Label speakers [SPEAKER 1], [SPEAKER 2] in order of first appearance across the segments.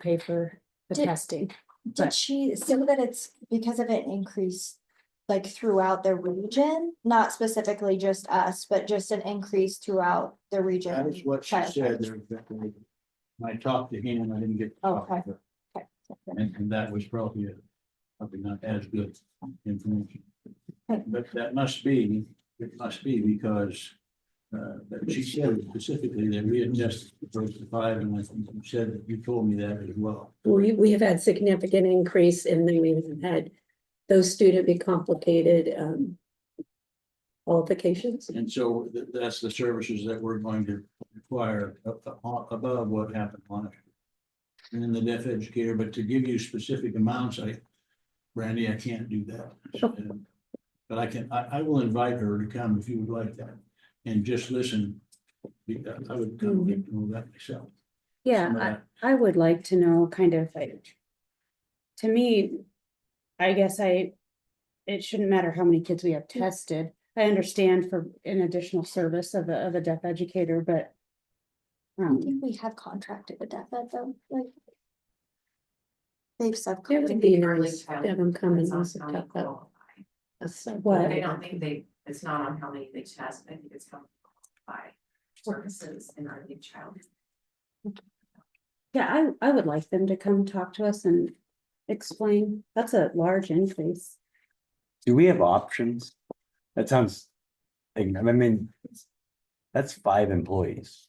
[SPEAKER 1] pay for the
[SPEAKER 2] Did-
[SPEAKER 1] testing.
[SPEAKER 2] Did
[SPEAKER 1] but-
[SPEAKER 2] she say that it's because of an increase, like throughout the region, not specifically just us, but just an increase throughout the region?
[SPEAKER 3] That is what she
[SPEAKER 2] child
[SPEAKER 3] said.
[SPEAKER 2] abuse?
[SPEAKER 3] there, Bethany. When I talked to him, I didn't get. to talk to
[SPEAKER 2] Okay.
[SPEAKER 3] her,
[SPEAKER 2] Okay.
[SPEAKER 3] And, and that was probably, a- probably not as good information.
[SPEAKER 2] Okay.
[SPEAKER 3] But that must be, it must be because, uh, that she said specifically that we had tested the first five, and I think you said that you told me that as well.
[SPEAKER 4] We, we have had significant increase and then we've had those student be complicated, um, qualifications.
[SPEAKER 3] And so th- that's the services that we're going to require up- up- above what happened on it. And then the deaf educator, but to give you specific amounts, I, Brandy, I can't do that. And- But I can, I, I will invite her to come if you would like that and just listen. Be- I would come get to know that myself.
[SPEAKER 5] Yeah, I- I would like to know kind of like. To me, I guess I, it shouldn't matter how many kids we have tested. I understand for an additional service of a, of a deaf educator, but.
[SPEAKER 2] I
[SPEAKER 5] Um,
[SPEAKER 2] think we have contracted with that, but though, like. They've
[SPEAKER 4] It
[SPEAKER 2] subcontracted.
[SPEAKER 4] would be nice to have them come and also talk about us.
[SPEAKER 5] What?
[SPEAKER 6] But I don't think they, it's not on how many they test, I think it's how by services in our new child.
[SPEAKER 5] yeah, I, I would like them to come talk to us and explain. That's a large increase.
[SPEAKER 7] Do we have options? That sounds, like, I mean, that's five employees.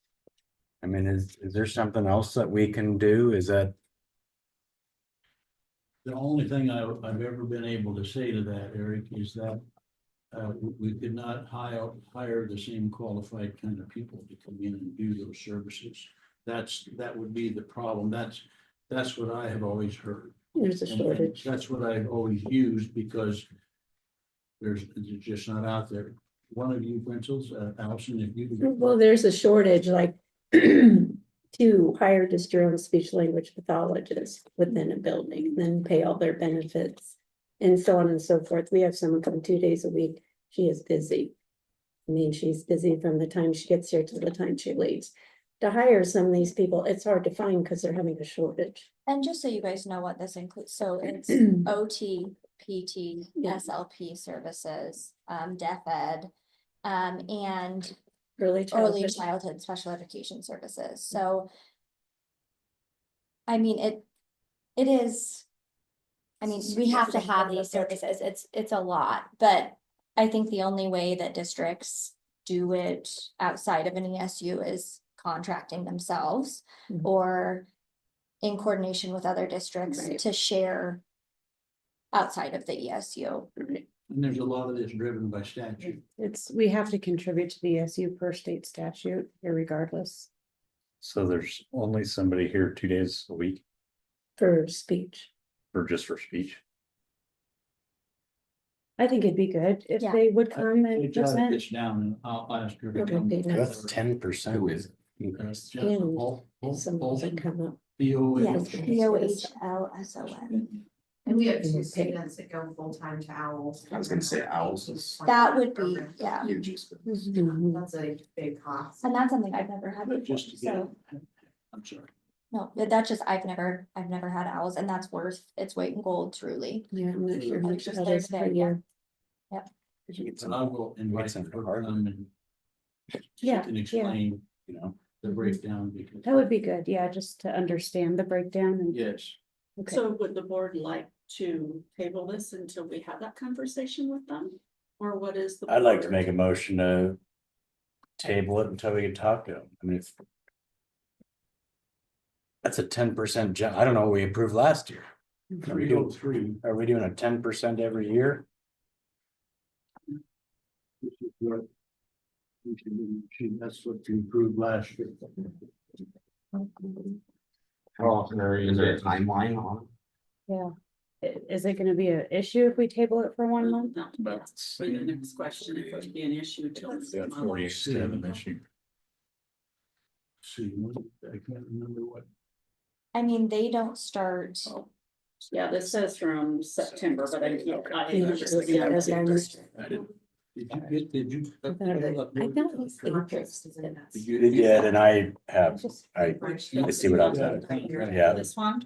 [SPEAKER 7] I mean, is, is there something else that we can do? Is that,
[SPEAKER 3] The only thing I, I've ever been able to say to that, Eric, is that uh, we- we could not hire, hire the same qualified kind of people to come in and do those services. That's, that would be the problem. That's, that's what I have always heard.
[SPEAKER 4] There's a
[SPEAKER 3] And- and
[SPEAKER 4] shortage.
[SPEAKER 3] That's what I've always used because there's, it's just not out there. One of you, Princess, uh, Allison, if you. could-
[SPEAKER 4] Well, there's a shortage, like to hire just your own speech language pathologist within a building, then pay all their benefits. And so on and so forth. We have someone come two days a week. She is busy. I mean, she's busy from the time she gets here to the time she leaves. To hire some of these people, it's hard to find because they're having a shortage.
[SPEAKER 2] And just so you guys know what this includes, so it's OT, PT,
[SPEAKER 4] Yeah.
[SPEAKER 2] SLP services, um, deaf ed. Um, and
[SPEAKER 4] Early
[SPEAKER 2] early
[SPEAKER 4] childhood.
[SPEAKER 2] childhood special education services, so. I mean, it, it is. I mean, we have to have these services, it's, it's a lot, but I think the only way that districts do it outside of an ESU is contracting themselves
[SPEAKER 4] Mhm.
[SPEAKER 2] or in coordination with other districts
[SPEAKER 4] Right.
[SPEAKER 2] to share outside of the E ESU.
[SPEAKER 4] Right.
[SPEAKER 3] And there's a lot of this driven by statute.
[SPEAKER 5] It's, we have to contribute to the SU per state statute irregardless.
[SPEAKER 8] So there's only somebody here two days a week
[SPEAKER 4] For speech.
[SPEAKER 8] for just for speech?
[SPEAKER 5] I think it'd be good if
[SPEAKER 2] Yeah.
[SPEAKER 5] they would
[SPEAKER 3] I-
[SPEAKER 5] come
[SPEAKER 3] We
[SPEAKER 5] and
[SPEAKER 3] jotted
[SPEAKER 5] present.
[SPEAKER 3] this down and I'll ask her to
[SPEAKER 4] Okay,
[SPEAKER 3] come.
[SPEAKER 4] nice.
[SPEAKER 7] that's ten percent.
[SPEAKER 8] Who is
[SPEAKER 3] Uh,
[SPEAKER 7] it?
[SPEAKER 3] Jennifer
[SPEAKER 4] Yeah.
[SPEAKER 3] Bol- Bol-
[SPEAKER 4] Some of them
[SPEAKER 3] Bolton?
[SPEAKER 4] come up.
[SPEAKER 3] B O N.
[SPEAKER 2] Yes,
[SPEAKER 4] Okay.
[SPEAKER 2] B O H L S O N,
[SPEAKER 6] And we have
[SPEAKER 4] And
[SPEAKER 6] two
[SPEAKER 4] we're paid.
[SPEAKER 6] students that go full-time to owls.
[SPEAKER 8] I was gonna say Owls is-
[SPEAKER 2] that would be, yeah,
[SPEAKER 6] That's a big cost.
[SPEAKER 2] and that's something I've never had
[SPEAKER 3] But
[SPEAKER 2] before,
[SPEAKER 3] just to get,
[SPEAKER 2] so.
[SPEAKER 3] I'm sorry,
[SPEAKER 2] No, but that's just, I've never, I've never had owls and that's worth its weight in gold truly.
[SPEAKER 4] Yeah, I'm not sure how
[SPEAKER 2] Like
[SPEAKER 4] much
[SPEAKER 2] just
[SPEAKER 4] that
[SPEAKER 2] there
[SPEAKER 4] is per
[SPEAKER 2] today, yeah.
[SPEAKER 4] year.
[SPEAKER 3] but I will invite
[SPEAKER 7] It's uh, in
[SPEAKER 3] her to
[SPEAKER 7] Harvard.
[SPEAKER 3] come and. she
[SPEAKER 5] Yeah,
[SPEAKER 3] can
[SPEAKER 5] yeah.
[SPEAKER 3] explain, you know, the breakdown because.
[SPEAKER 5] That would be good, yeah, just to understand the breakdown and.
[SPEAKER 3] Yes,
[SPEAKER 5] Okay.
[SPEAKER 9] So would the board like to table this until we have that conversation with them? Or what is the?
[SPEAKER 7] I'd like to
[SPEAKER 9] board-
[SPEAKER 7] make a motion to table it until we can talk to them. I mean, if that's a ten percent jump. I don't know what we approved last year. Are we
[SPEAKER 3] three oh
[SPEAKER 7] doing,
[SPEAKER 3] three,
[SPEAKER 7] are we doing a ten percent every year?
[SPEAKER 3] which is what. we can- she- That's what you approved last year.
[SPEAKER 7] How often are
[SPEAKER 8] Is there a
[SPEAKER 7] timeline on?
[SPEAKER 5] I- Is it gonna be an issue if we table it for one month?
[SPEAKER 9] No, that's for the next question, if it would be an issue till.
[SPEAKER 8] We got forty-seven this year.
[SPEAKER 3] See, what- I can't remember what.
[SPEAKER 2] I mean, they don't start,
[SPEAKER 9] Yeah, this says from September, but I can't. I
[SPEAKER 4] Yeah,
[SPEAKER 9] remember
[SPEAKER 4] it's
[SPEAKER 9] seeing
[SPEAKER 4] like
[SPEAKER 9] it.
[SPEAKER 4] that was-
[SPEAKER 3] I didn't- Did you get, did you?
[SPEAKER 4] I thought it was- I thought it was
[SPEAKER 6] Contracts is in
[SPEAKER 7] You did, and I have, I,
[SPEAKER 6] that.
[SPEAKER 7] I see what I'm saying.
[SPEAKER 6] Yeah.
[SPEAKER 7] yeah.
[SPEAKER 9] This one?